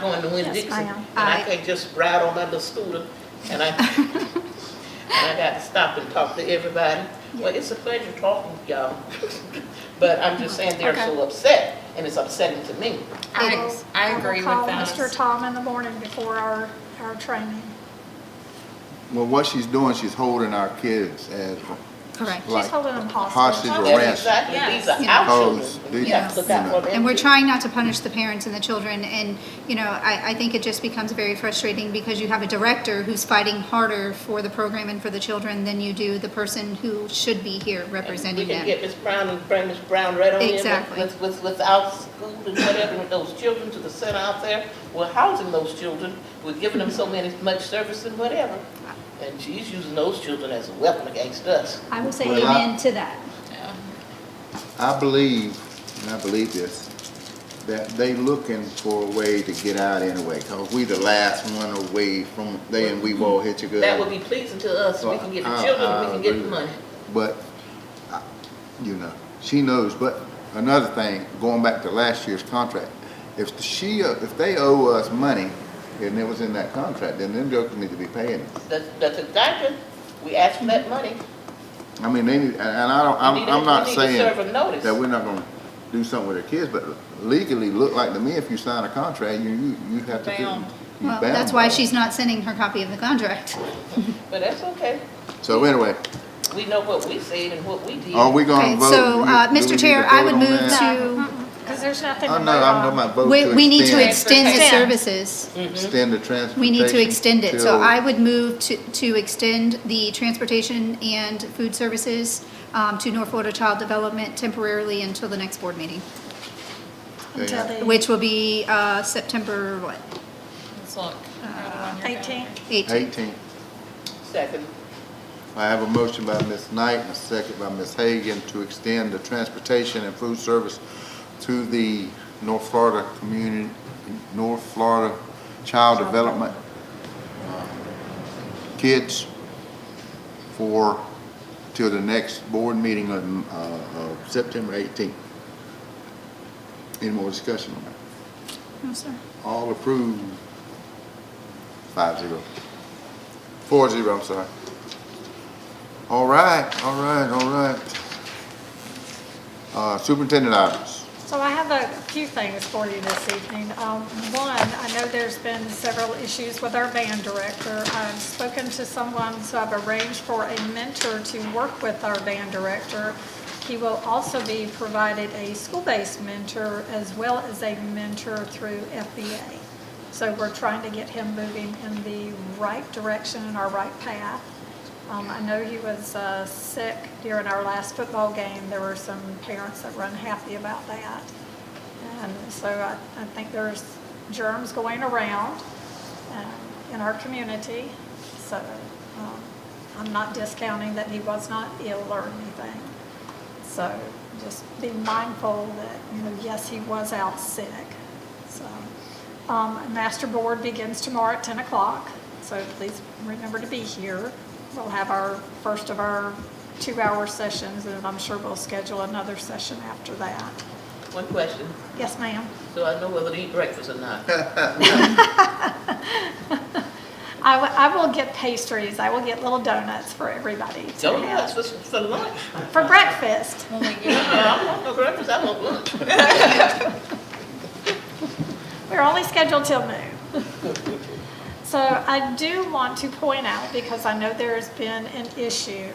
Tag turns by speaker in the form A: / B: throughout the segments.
A: going to Win Dixon.
B: I am.
A: And I
C: I-
A: can't just ride on another scooter and I, and I got to stop and talk to everybody. Well, it's a pleasure talking to y'all. But I'm just saying they're so upset and it's upsetting to me.
B: I
C: It
B: will-
C: is. I agree with that.
B: I will call Mr. Tom in the morning before our, our training.
D: Well, what she's doing, she's holding our kids as
C: Correct.
D: like
B: She's holding them hostage.
D: hostage or
A: That's
D: arrest.
A: exactly, these are our
D: Yes.
A: children.
D: Because
A: and We have to look
D: they-
A: out for them.
C: And we're
A: too.
C: trying not to punish the parents and the children, and, you know, I, I think it just becomes very frustrating because you have a director who's fighting harder for the program and for the children than you do the person who should be here representing
A: We can
C: them.
A: get Ms. Brown and bring Ms. Brown right on in. with-
C: Exactly.
A: With, with, with our school and whatever, with those children to the center out there. We're housing those children, we're giving them
C: Mm-hmm.
A: so many, much service and whatever. And she's using those children as a weapon against us.
B: I will say
D: Well, I-
B: amen to that.
D: I believe, and I believe this, that they looking for a way to get out anyway, because we the last one away from, they and we all hit you good.
A: That would be pleasing to us, we can get the children, we can get the money.
D: But, I- you know, she knows, but another thing, going back to last year's contract, if she, if they owe us money, and it was in that contract, then them jokers need to be paying it.
A: That's, that's exactly, we asked for that money.
D: I mean, they need, and and I don't,
A: We
D: I'm,
A: need to-
D: I'm not
A: We need to serve
D: saying
A: a notice.
D: that we're not gonna do something with their kids, but legally, look like to me, if you sign a contract, you, you, you have to do.
A: Bound.
D: you
C: Well,
D: bound
C: that's why
D: by it.
C: she's not sending her copy of the contract.
A: But that's okay,
D: So anyway,
A: we know what we said and what we did.
D: are we gonna
C: Okay,
D: vote?
C: so,
D: You-
C: uh,
D: do we need
C: Mr.
D: to
C: Chair, I
D: vote
C: would
D: on
C: move
D: that?
C: to,
B: Because there's nothing
D: Oh, no, I'm talking about vote to
C: we,
D: extend.
C: we need to extend the
B: Transportation.
C: services.
D: Extend the transportation.
C: We need to extend it, so
D: till-
C: I would move to, to extend the transportation and food services, um, to North Florida Child Development temporarily until the next board meeting,
B: Until
D: Yeah.
B: the
C: which will be, uh, September, what,
E: Let's look.
B: eighteenth.
C: eighteenth?
D: Eighteen.
A: Second,
D: I have a motion by Ms. Knight and a second by Ms. Hagan to extend the transportation and food service to the North Florida Community, North Florida Child Development uh, Kids for, till the next board meeting on, uh, of September eighteenth. Any more discussion on that?
C: No, sir.
D: All approved. Five zero. Four zero, I'm sorry. All right, all right, all right. Uh, superintendent items.
B: So I have a few things for you this evening. Um, One, I know there's been several issues with our band director. I've spoken to someone, so I've arranged for a mentor to work with our band director. He will also be provided a school-based mentor as well as a mentor through FBA. So we're trying to get him moving in the right direction and our right path. Um, I know he was uh, sick during our last football game. There were some parents that were unhappy about that. And so I, I think there's germs going around uh, in our community. So um, I'm not discounting that he was not ill or anything. So just be mindful that, you know, yes, he was out sick. So, um, master board begins tomorrow at ten o'clock, so please remember to be here. We'll have our first of our two-hour sessions, and I'm sure we'll schedule another session after that.
A: one question,
B: Yes, ma'am?
A: so I know whether to eat breakfast or not.
B: I, w- I will get pastries. I will get little donuts for everybody to
A: Don't ask
B: have.
A: for, for lunch.
B: For breakfast.
A: I want no breakfast, I want lunch.
B: We're only scheduled till noon. So I do want to point out, because I know there's been an issue,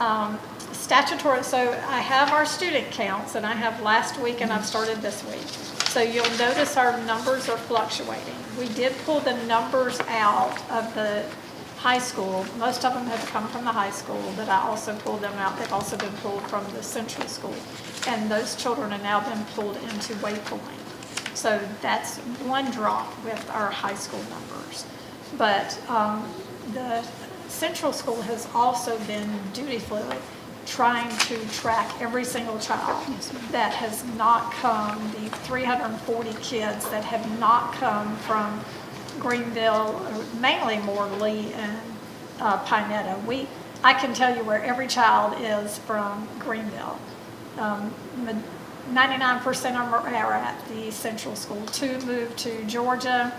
B: um, statutory, so I have our student counts, and I have last week, and I've started this week. So you'll notice our numbers are fluctuating. We did pull the numbers out of the high school. Most of them have come from the high school, but I also pulled them out. They've also been pulled from the central school. And those children have now been pulled into Waypoint. So that's one drop with our high school numbers. But um, the central school has also been dutifully trying to track every single child that has not come, the 340 kids that have not come from Greenville, mainly Morley and uh, Pinetta. We, I can tell you where every child is from Greenville. Um, ma- 99% of them are at the central school. Two moved to Georgia,